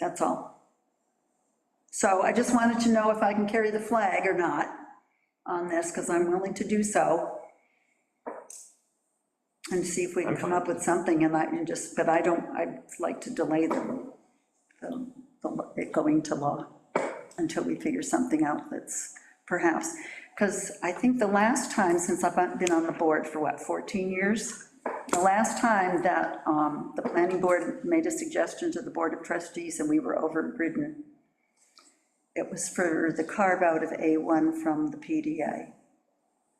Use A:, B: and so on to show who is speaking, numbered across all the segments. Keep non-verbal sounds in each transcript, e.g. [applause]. A: That's all. So I just wanted to know if I can carry the flag or not on this, because I'm willing to do so. And see if we can come up with something, and I, and just, but I don't, I'd like to delay them, the- the- it going to law, until we figure something out that's perhaps, because I think the last time, since I've been on the board for what, 14 years? The last time that um, the planning board made a suggestion to the Board of Trustees and we were overridden, it was for the carve-out of A1 from the PDA.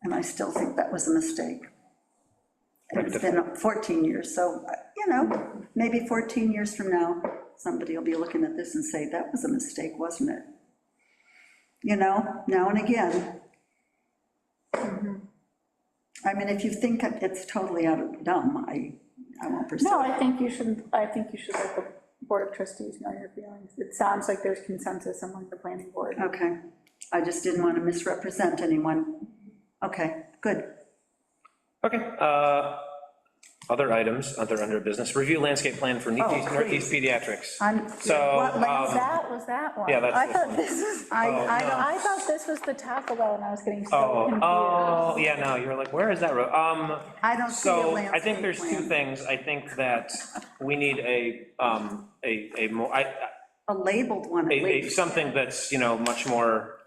A: And I still think that was a mistake. And It's been 14 years, so, uh, you know, maybe 14 years from now, somebody will be looking at this and say, that was a mistake, wasn't it? You know, now and again. I mean, if you think it's totally out of dumb, I, I won't pursue.
B: No,
A: it.
B: I think you should, I think you should let the Board of Trustees know your feelings. It sounds like there's consensus among the planning board.
A: Okay, I just didn't want to misrepresent anyone. Okay, good.
C: Okay, uh, other items, other under business, review landscape plan for Northeast Northeast Pediatrics.
A: I'm-
C: So,
A: what lands-
C: um,
B: That was that one.
C: Yeah, that's
B: I
C: this
B: thought
C: one.
B: this was,
A: I, I don't,
B: I thought this was the Taco Bell, and I was getting so
C: oh,
B: confused.
C: oh, yeah, no, you were like, where is that road? Um,
A: I don't see a
C: so I
A: landscape
C: think there's two
A: plan.
C: things. I think that we need a, um, a, a more, I, I-
A: a labeled one at
C: a, a-
A: least.
C: something that's, you know, much more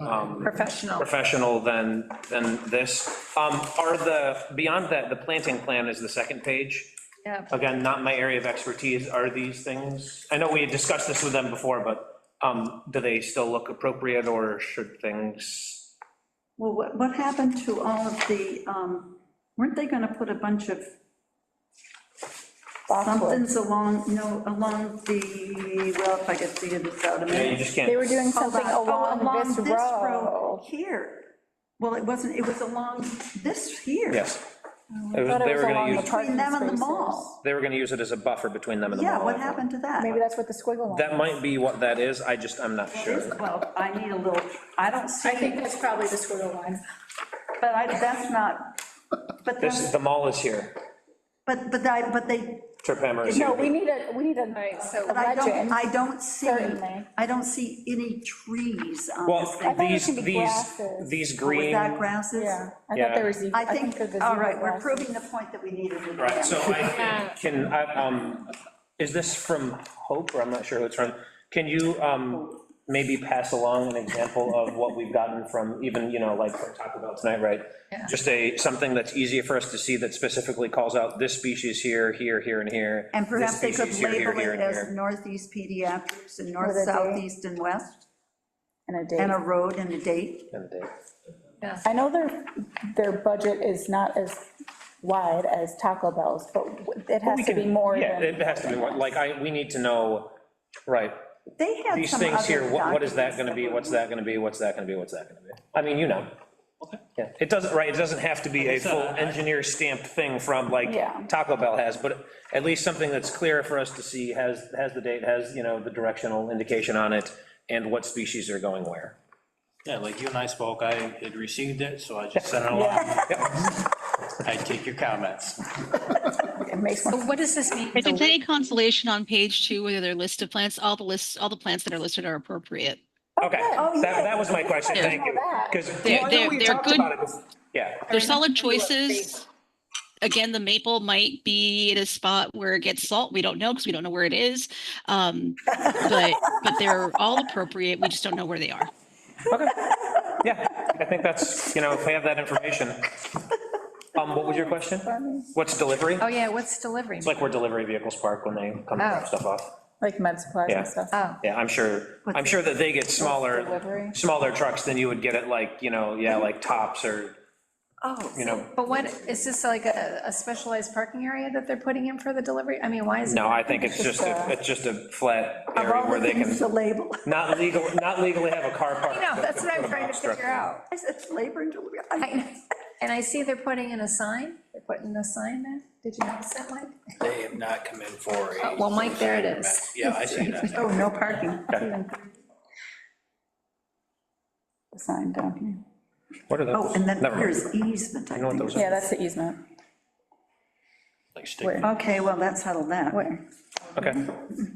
C: um,
D: Professional.
C: professional than, than this. Um, are the, beyond that, the planting plan is the second page.
D: Yeah.
C: Again, not my area of expertise, are these things, I know we had discussed this with them before, but, um, do they still look appropriate, or should things?
A: Well, what, what happened to all of the, um, weren't they gonna put a bunch of
B: Boxwood.
A: somethings along, you know, along the, well, if I could figure this out a
C: Yeah, you
A: minute.
C: just can't.
B: They were doing
A: Hold
B: something
A: on. Oh,
B: along this road.
A: Here. Well, it wasn't, it was along this here.
C: Yes. It was-
B: Oh, Thought
C: They
B: it was
C: were
B: along
C: gonna
B: the
C: use,
B: parking
A: Between them and the
B: spaces.
A: mall.
C: they were gonna use it as a buffer between them and the mall.
A: Yeah, what happened to that?
B: Maybe that's what the squiggle line.
C: That might be what that is, I just, I'm not sure.
B: um,
A: Well, I need a little, I don't see,
B: I think that's probably the squiggle line.
A: but I, that's not, but
C: This, is
A: that's,
C: the mall is here,
A: but, but I, but they,
C: Trip Hammer is
B: No,
C: here.
B: we need a, we need a a
A: but I don't,
B: legend.
A: I don't see,
B: Certainly.
A: I don't see any trees on this
C: Well,
A: thing.
B: thought it
C: these,
B: should be
C: these,
B: grasses. Oh,
C: these green.
A: With that grasses?
B: Yeah, I thought
C: Yeah.
B: there was,
A: I
B: I think
A: think,
B: there's a
A: all right, we're
B: zebra.
A: proving the point that we needed. to do.
C: Right, so
A: [laughs]
C: I
D: Yeah.
C: can, I, um, is this from Hope, or I'm not sure who it's from? Can you, um, maybe pass along an example of what we've gotten from even, you know, like from Taco Bell tonight, right?
D: Yeah.
C: Just a, something that's easier for us to see that specifically calls out this species here, here, here, and here.
A: And
C: this
A: perhaps they could
C: species here, here,
A: label
C: here,
A: it
C: and
A: as
C: here.
A: northeast pediatrics and north,
B: With a date.
A: south, east, and west,
B: And a
A: and
B: date.
A: a road and a date.
C: And they-
D: Yeah.
B: I know their, their budget is not as wide as Taco Bell's, but it
C: We
B: has to be
C: can-
B: more
C: Yeah, it
B: than,
C: has to be, more. like, I, we need to know, right,
A: They had
C: these
A: some
C: things
A: other
C: here, what, what is that
A: documents
C: gonna be,
A: were-
C: what's that gonna be, what's that gonna be, what's that gonna be? I mean, you know. Yeah, it doesn't, right, it doesn't have to be a full engineer stamped thing from like
B: Yeah.
C: Taco Bell has, but at least something that's clear for us to see, has, has the date, has, you know, the directional indication on it, and what species are going where.
E: Yeah, like you and I spoke, I had received it, so I just sent it along. I take your comments.
B: it makes more.
D: So what does this mean?
F: If it's any consolation on page two, whether they're listed plants, all the lists, all the plants that are listed are appropriate.
C: Okay,
A: Oh,
C: that,
A: yeah.
C: that was my question,
F: Yeah.
C: thank you. Because,
F: They're- they're- they're good-
C: yeah,
F: They're solid choices. Again, the maple might be at a spot where it gets salt. We don't know because we don't know where it is. Um, But, but they're all appropriate. We just don't know where they are.
C: okay, yeah, I think that's, you know, if we have that
A: [laughs]
C: information. Um, what was your question? What's delivery?
D: Oh, yeah, what's delivery?
C: It's like where delivery vehicles park when they come to drop
D: Oh.
C: stuff off.
B: Like med supplies
C: Yeah.
B: and stuff.
D: Oh,
C: Yeah, I'm sure, I'm sure that they get
B: Delivery?
C: smaller, smaller trucks than you would get at like, you know, yeah, like tops or,
D: oh,
C: you know,
D: but what, is this like a, a specialized parking area that they're putting in for the delivery? I mean, why is it?
C: no,
D: [laughs]
C: I think it's just, a it's just a flat area where they
A: It's
C: can,
A: a label. [laughs]
C: not legal, not legally have a car park.
D: I know,
C: but
D: that's
C: can
D: what
C: put
D: I'm
C: a
D: trying to
C: box truck.
D: figure out.
A: I said, it's labor and delivery. I-
D: I [laughs] know. And I see they're putting in a sign, they're putting a sign there. Did you notice that, Mike?
E: They have not come in for
D: Oh,
E: a.
D: well, Mike, there it is.
E: Yeah, I see that.
A: [laughs] Oh, no parking.
B: The sign down here.
C: What are
A: Oh,
C: those?
A: and then
C: Never mind.
A: there's easement, I
C: know what
A: think.
C: those
B: Yeah, that's the easement.
E: Like stick-
A: Okay, well, that's settled that.
B: Where?
C: Okay.